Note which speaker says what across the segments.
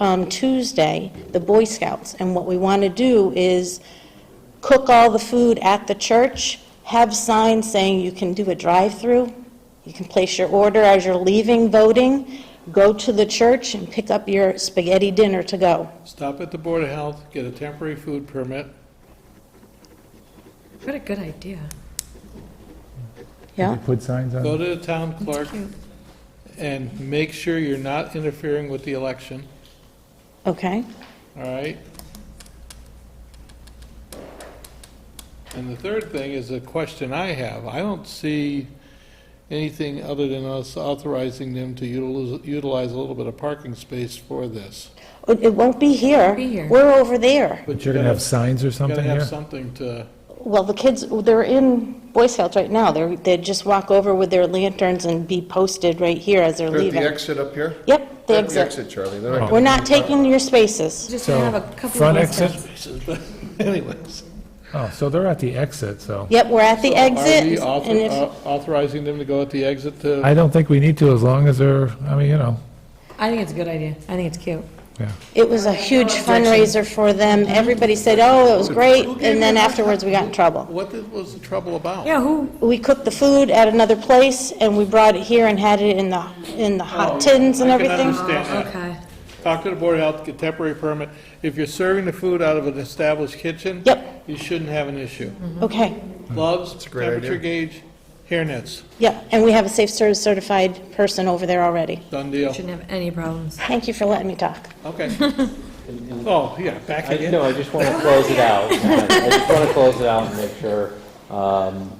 Speaker 1: um, Tuesday, the Boy Scouts. And what we want to do is cook all the food at the church, have signs saying you can do a drive-through, you can place your order as you're leaving voting, go to the church and pick up your spaghetti dinner to go.
Speaker 2: Stop at the Board of Health, get a temporary food permit.
Speaker 3: What a good idea.
Speaker 1: Yeah?
Speaker 4: Put signs
Speaker 2: Go
Speaker 4: on,
Speaker 2: to the town clerk and make sure you're not interfering with the election,
Speaker 3: Mm-hmm.
Speaker 1: Okay?
Speaker 2: all right? And the third thing is a question I have. I don't see anything other than us authorizing them to utilize, utilize a little bit of parking space for this.
Speaker 1: It it won't be here.
Speaker 3: Be here.
Speaker 1: We're over there.
Speaker 2: But
Speaker 4: you're gonna have signs or
Speaker 2: Gotta
Speaker 4: something
Speaker 2: have
Speaker 4: here?
Speaker 2: something to,
Speaker 1: Well, the kids, they're in Boy Scouts right now. They're, they just walk over with their lanterns and be posted right here as they're
Speaker 5: They're at the
Speaker 1: leaving.
Speaker 5: exit up here?
Speaker 1: Yep, the
Speaker 5: They're at the
Speaker 1: exit.
Speaker 5: exit, Charlie. They're not
Speaker 1: We're
Speaker 5: gonna-
Speaker 1: not taking your spaces.
Speaker 3: Just
Speaker 4: So,
Speaker 3: have a couple of.
Speaker 4: front
Speaker 3: Boy
Speaker 4: exit?
Speaker 3: Scouts.
Speaker 2: anyways.
Speaker 4: Oh, so they're at the exit, so.
Speaker 1: Yep, we're at the
Speaker 2: Are we
Speaker 1: exit.
Speaker 2: author-
Speaker 1: and if-
Speaker 2: au- authorizing them to go at the exit to?
Speaker 4: I don't think we need to, as long as they're, I mean, you know,
Speaker 3: I think it's a good idea. I think it's cute.
Speaker 4: yeah.
Speaker 1: It was a huge fundraiser for them. Everybody said, oh, it was great, and then afterwards, we got in trouble.
Speaker 2: What the- was the trouble about?
Speaker 3: Yeah, who,
Speaker 1: We cooked the food at another place, and we brought it here and had it in the, in the hot tins and
Speaker 2: Oh, I can
Speaker 1: everything.
Speaker 2: understand that.
Speaker 3: okay.
Speaker 2: Talk to the Board of Health, get temporary permit. If you're serving the food out of an established kitchen.
Speaker 1: Yep. Mm-hmm.
Speaker 2: You shouldn't have an issue.
Speaker 1: Okay,
Speaker 2: Gloves,
Speaker 5: a great idea.
Speaker 2: temperature gauge, hairnets,
Speaker 1: yeah, and we have a safe service certified person over there already.
Speaker 2: done deal.
Speaker 3: Shouldn't have any problems.
Speaker 1: Thank you for letting me talk.
Speaker 2: Okay. Oh, yeah, back
Speaker 6: I,
Speaker 2: again.
Speaker 6: no, I just want to close it out. I just want to close it out and make sure. um,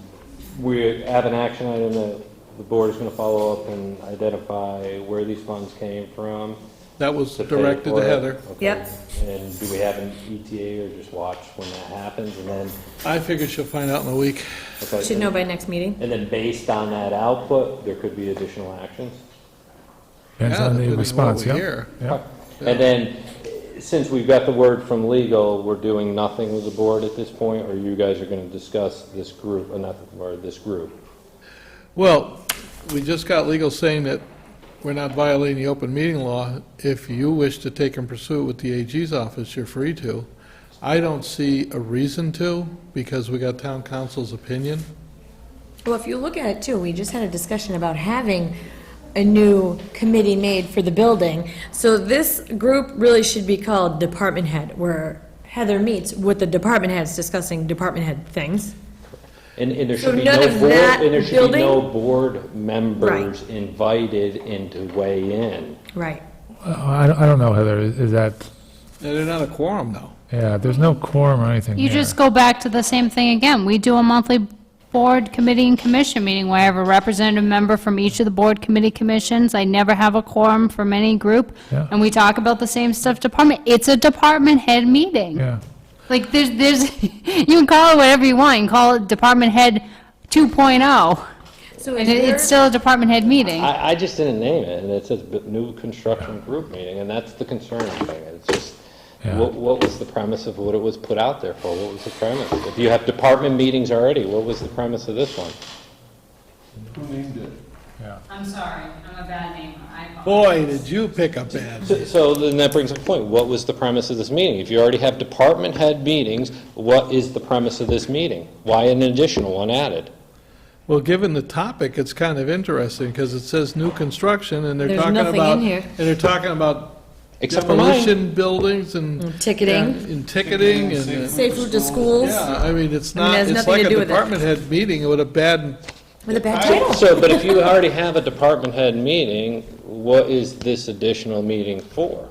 Speaker 6: We have an action item that the board is going to follow up and identify where these funds came from.
Speaker 2: That was
Speaker 6: to pay
Speaker 2: directed
Speaker 6: for
Speaker 2: to
Speaker 6: it.
Speaker 2: Heather.
Speaker 6: Okay.
Speaker 3: Yep.
Speaker 6: And do we have an ETA or just watch when that happens? And then,
Speaker 2: I figured she'll find out in a week.
Speaker 6: okay,
Speaker 3: Should know by next meeting.
Speaker 6: and then based on that output, there could be additional actions?
Speaker 4: Depends
Speaker 2: Yeah,
Speaker 4: on
Speaker 2: depending
Speaker 4: the
Speaker 2: on
Speaker 4: response,
Speaker 2: what we
Speaker 4: yeah.
Speaker 2: hear.
Speaker 4: Yeah.
Speaker 6: And then, since we've got the word from legal, we're doing nothing with the board at this point, or you guys are going to discuss this group, or not, or this group?
Speaker 2: Well, we just got legal saying that we're not violating the open meeting law. If you wish to take and pursue it with the AG's office, you're free to. I don't see a reason to, because we got town council's opinion.
Speaker 3: Well, if you look at it too, we just had a discussion about having a new committee made for the building. So this group really should be called department head, where Heather meets with the department heads discussing department head things.
Speaker 6: And, and there
Speaker 3: So
Speaker 6: should be
Speaker 3: none
Speaker 6: no
Speaker 3: of
Speaker 6: board,
Speaker 3: that
Speaker 6: and there should be no
Speaker 3: building?
Speaker 6: board members invited in to weigh in.
Speaker 3: Right.
Speaker 4: Uh, I don't- I don't know, Heather, is is that,
Speaker 2: Now, they're not a quorum, though.
Speaker 4: yeah, there's no quorum or anything
Speaker 7: You
Speaker 4: here.
Speaker 7: just go back to the same thing again. We do a monthly board committee and commission meeting where I have a representative member from each of the board committee commissions. I never have a quorum from any group.
Speaker 4: Yeah.
Speaker 7: And we talk about the same stuff department. It's a department head meeting.
Speaker 4: Yeah,
Speaker 7: Like, there's, there's, you can call it whatever you want. You can call it department head 2.0.
Speaker 3: So
Speaker 7: And it- it's still a department head meeting.
Speaker 6: I, I just didn't name it, and it says b- new construction group meeting, and that's the concerning thing. It's just,
Speaker 4: Yeah.
Speaker 6: what, what was the premise of what it was put out there for? What was the premise? If you have department meetings already, what was the premise of this one?
Speaker 4: yeah.
Speaker 8: I'm sorry, I'm a bad name. I apologize.
Speaker 2: Boy, did you pick up bad.
Speaker 6: So- So then that brings up a point, what was the premise of this meeting? If you already have department head meetings, what is the premise of this meeting? Why an additional one added?
Speaker 2: Well, given the topic, it's kind of interesting, because it says new construction, and they're
Speaker 3: There's
Speaker 2: talking about...
Speaker 3: nothing in here.
Speaker 2: And they're talking about
Speaker 6: Except for mine.
Speaker 2: demolition buildings and...
Speaker 3: Ticketing,
Speaker 2: Yeah, And ticketing, and... uh,
Speaker 3: safe route to schools,
Speaker 2: Yeah, I mean, it's
Speaker 3: I mean, it
Speaker 2: not,
Speaker 3: has
Speaker 2: it's
Speaker 3: nothing to
Speaker 2: like a
Speaker 3: do with it.
Speaker 2: department head meeting with a bad,
Speaker 3: with a bad title.
Speaker 6: So, but if you already have a department head meeting, what is this additional meeting for?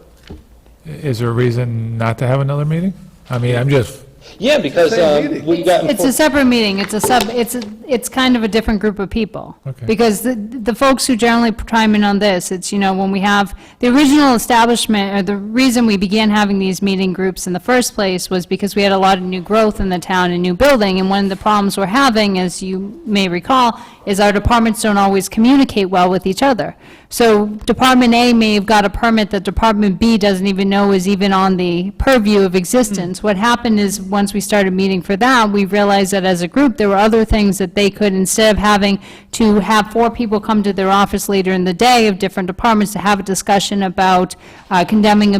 Speaker 4: Is there a reason not to have another meeting? I mean, I'm just,
Speaker 6: Yeah, because
Speaker 2: Same
Speaker 6: um,
Speaker 2: meeting.
Speaker 6: we've got.
Speaker 7: It's a separate meeting, it's a sub, it's, a- it's kind of a different group of people.
Speaker 4: Okay.
Speaker 7: Because the, the folks who generally chime in on this, it's, you know, when we have, the original establishment, or the reason we began having these meeting groups in the first place was because we had a lot of new growth in the town and new building, and one of the problems we're having, as you may recall, is our departments don't always communicate well with each other. So Department A may have got a permit that Department B doesn't even know is even on the purview of existence. What happened is, once we started meeting for that, we realized that as a group, there were other things that they could, instead of having to have four people come to their office later in the day of different departments to have a discussion about uh, condemning